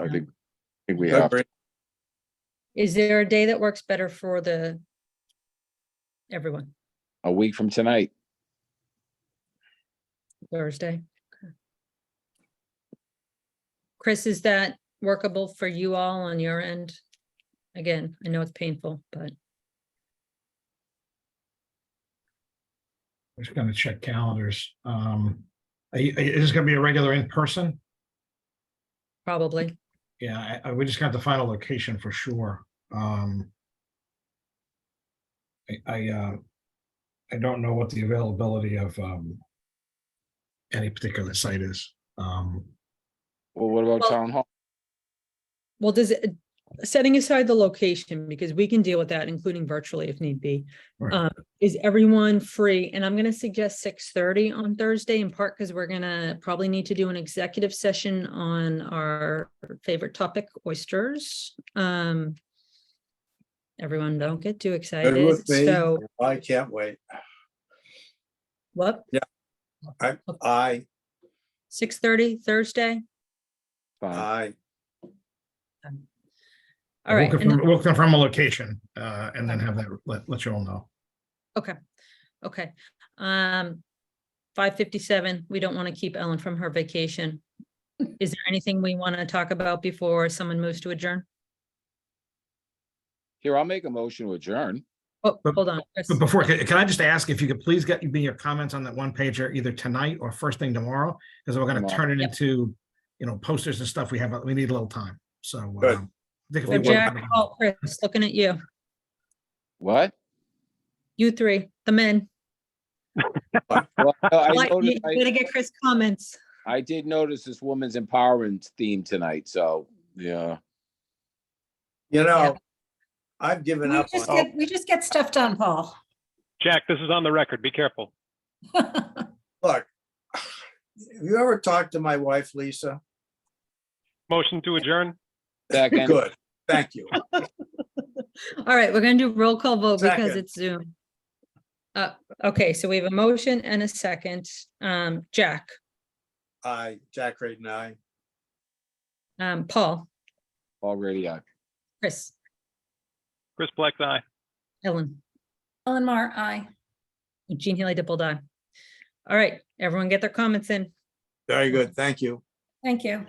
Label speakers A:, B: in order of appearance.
A: I
B: Yeah.
A: think, I think we
C: Good
A: have,
C: break.
B: Is there a day that works better for the everyone?
A: a week from tonight,
B: Thursday? Okay. Chris, is that workable for you all on your end? Again, I know it's painful, but
D: I'm just gonna check calendars. Um, are you- is this gonna be a regular in person?
B: probably.
D: Yeah, I- I, we just got the final location for sure. Um. I, I, uh, I don't know what the availability of, um. Any particular site is. Um,
A: well, what about
B: Well-
A: town hall?
B: Well, does it, setting aside the location, because we can deal with that, including virtually if need be.
D: Right.
B: um, Is everyone free? And I'm gonna suggest six thirty on Thursday in part because we're gonna probably need to do an executive session on our favorite topic, oysters. Um, Everyone don't get too
C: Good
B: excited.
C: with me.
B: So
C: I can't wait.
B: what,
C: I,
B: six thirty Thursday?
A: Fine.
C: I,
B: All
D: we'll
B: right. and-
D: confirm- We'll confirm a location, uh, and then have that, let, let you all know.
B: Okay, um, five fifty-seven, we don't want to keep Ellen from her vacation. Is there anything we want to talk about before someone moves to adjourn?
A: Here, I'll make a motion to adjourn.
B: Oh,
D: But-
B: hold on. Chris.
D: But before, can can I just ask if you could please get me your comments on that one pager either tonight or first thing tomorrow? Because we're gonna
A: Tomorrow.
D: turn it
B: Yep.
D: into, you know, posters and stuff. We have, we need a little time, so.
C: Good.
D: um, I think if
B: So
D: we work-
B: Jack, Paul, Oh, Chris, looking at you,
A: What?
B: you three, the men.
A: Well, no, I
B: Like,
A: noticed-
B: you
A: I-
B: Gotta get Chris comments.
A: I did notice this woman's empowerment theme tonight, so, yeah.
C: you know, I've given
E: We
C: up
E: just
C: on,
E: get, we just get stuff done, Paul.
F: Jack, this is on the record. Be careful.
C: look. Have you ever talked to my wife, Lisa?
F: Motion to adjourn?
A: Second,
C: Good, thank you.
B: All right, we're gonna do roll call vote because
C: Second.
B: it's Zoom. Uh, okay, so we have a motion and a second. Um, Jack,
C: I, Jack Creighton, I.
B: um, Paul,
A: already, I
B: Chris,
F: Chris Black's eye.
B: Ellen,
E: Ellen Mar, aye.
B: Jean Haley Dipple Dye. All right, everyone get their comments in.
C: Very good, thank you.
E: Thank you.